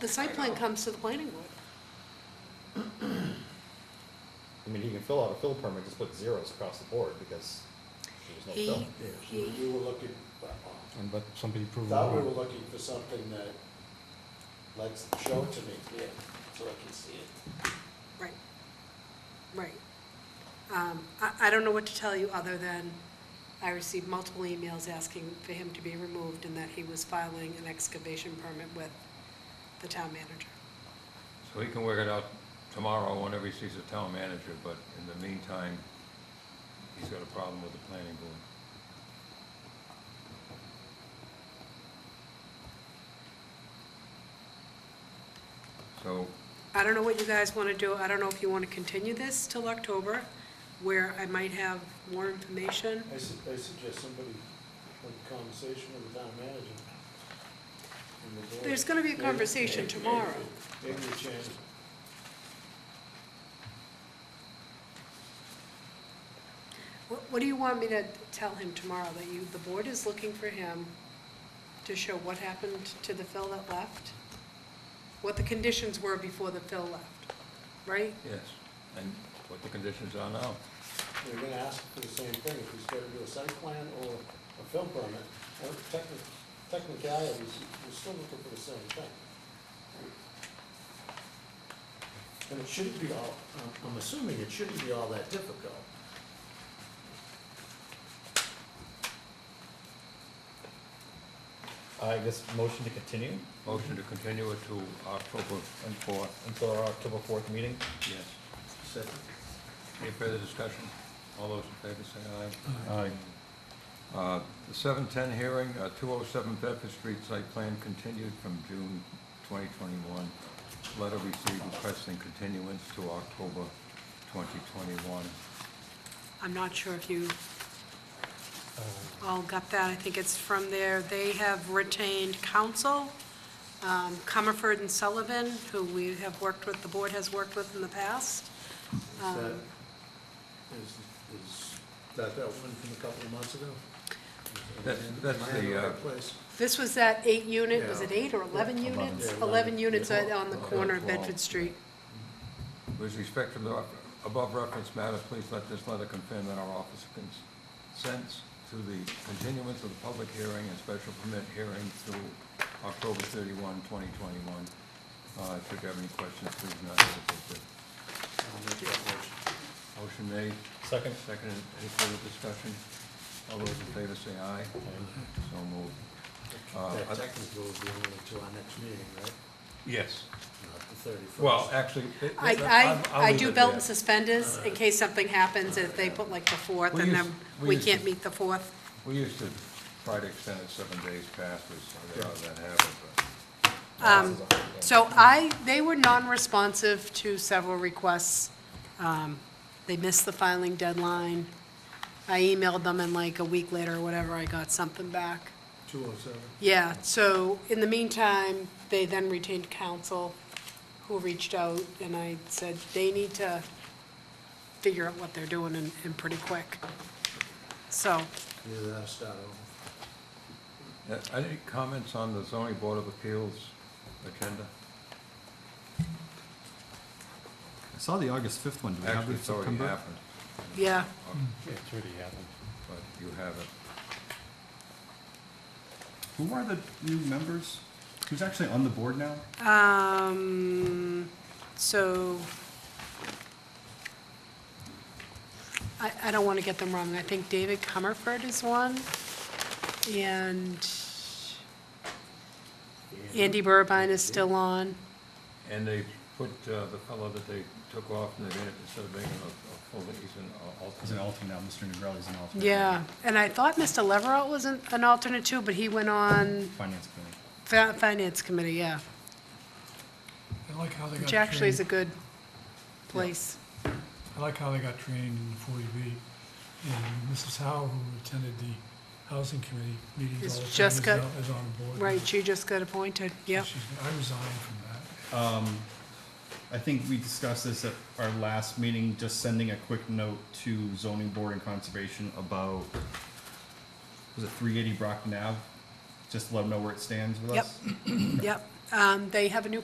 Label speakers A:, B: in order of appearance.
A: the site plan comes to the planning board.
B: I mean, he can fill out a fill permit, just put zeros across the board because there's no
A: He,
B: fill.
A: he,
C: We were looking,
D: And but somebody
C: I
D: proved
C: thought we
D: wrong.
C: were looking for something that, like, show it to me, yeah, so I can see it.
A: right, right. Um, I, I don't know what to tell you other than I received multiple emails asking for him to be removed and that he was filing an excavation permit with the town manager.
E: So he can work it out tomorrow whenever he sees the town manager, but in the meantime, he's got a problem with the planning board. So,
A: I don't know what you guys want to do. I don't know if you want to continue this till October, where I might have more information.
C: I su- I suggest somebody have a conversation with the town manager. and the board.
A: There's gonna be a
C: Maybe-
A: conversation
C: maybe-
A: tomorrow.
C: Maybe a chance.
A: What, what do you want me to tell him tomorrow? That you, the board is looking for him to show what happened to the fill that left? What the conditions were before the fill left, right?
E: yes, and what the conditions are now.
C: They're gonna ask for the same thing, if he's gotta do a site plan or a film permit, or techni- technicalities, we're still looking for the same thing. And it shouldn't be all, I'm- I'm assuming it shouldn't be all that difficult.
B: I guess motion to continue
E: Motion to continue it to October fourth,
B: until our October fourth meeting.
E: yes.
C: Second.
E: Any further discussion? All those in favor say aye.
D: Aye.
E: Uh, The 710 hearing, uh, 207 Bedford Street site plan continued from June 2021. Letter received requesting continuance to October 2021.
A: I'm not sure if you
C: Uh.
A: all got that. I think it's from there. They have retained counsel, um, Comerford and Sullivan, who we have worked with, the board has worked with in the past.
C: Is that, is, is that that one from a couple of months ago?
E: That's-
C: Am I
E: that's
C: in
E: the,
C: right
E: uh,
C: place?
A: This was that eight unit, was it
C: Yeah.
A: eight or 11 units?
C: Yeah,
A: 11
C: eleven.
A: units
C: Yeah.
A: on on the
E: Okay,
A: corner of
E: twelve.
A: Bedford Street.
E: With respect to the above reference matter, please let this letter confirm that our office consents to the continuance of the public hearing and special permit hearing through October 31, 2021. Uh, If you have any questions, please not hesitate to
C: I'll make that motion.
E: Motion made,
B: Second.
E: second, any further discussion? All those in favor say aye. So moved. Uh,
C: That
E: I-
C: technically will be only to our next meeting, right?
E: Yes.
C: Not the thirty-first.
E: Well, actually. it-
A: I,
E: it- I'll-
A: I,
E: I'll
A: I
E: leave
A: do
E: it
A: belt
E: there.
A: and suspenders in case something happens, if they put like the fourth,
E: We
A: and
E: used-
A: then
E: we
A: we
E: used
A: can't
E: to-
A: meet the fourth.
E: We used to try to extend it seven days past, we saw that happen, but.
B: Um,
A: So I, they were non-responsive to several requests. Um, They missed the filing deadline. I emailed them and like a week later or whatever, I got something back.
C: Two oh seven.
A: Yeah, so in the meantime, they then retained counsel who reached out and I said, they need to figure out what they're doing and, and pretty quick. So,
C: Either that or start over.
E: Uh, Any comments on the zoning board of appeals agenda?
B: I saw the August fifth one. Do we have
E: Actually,
B: the
E: it's already
B: September?
E: happened, Uh,
A: yeah,
D: Yeah, it's already happened.
E: but you have it.
B: Who are the new members? Who's actually on the board now?
A: um, so I, I don't want to get them wrong. I think David Comerford is one and Andy Burbine is still on.
E: And they put uh, the fellow that they took off, and they made it instead of making a a full, he's an al- alternate.
B: He's an alternate now. Mr. Negrelli's an alternate.
A: Yeah, and I thought Mr. Leverott was an, an alternate too, but he went on
B: Finance committee.
A: Fi- Finance Committee, yeah,
F: I like how they got
A: which actually is a
F: trained,
A: good place.
F: I like how they got trained in forty B. And Mrs. Howe, who attended the housing committee meetings
A: Is
F: all the time, is
A: Jessica-
F: now- is on the board.
A: Right, she just got appointed, yep.
F: She's- I resigned from that.
G: Um, I think we discussed this at our last meeting, just sending a quick note to zoning board and conservation about, was it three eighty Brock Nav? Just to let them know where it stands with
A: Yep.
G: us?
A: Yep, um, they have a new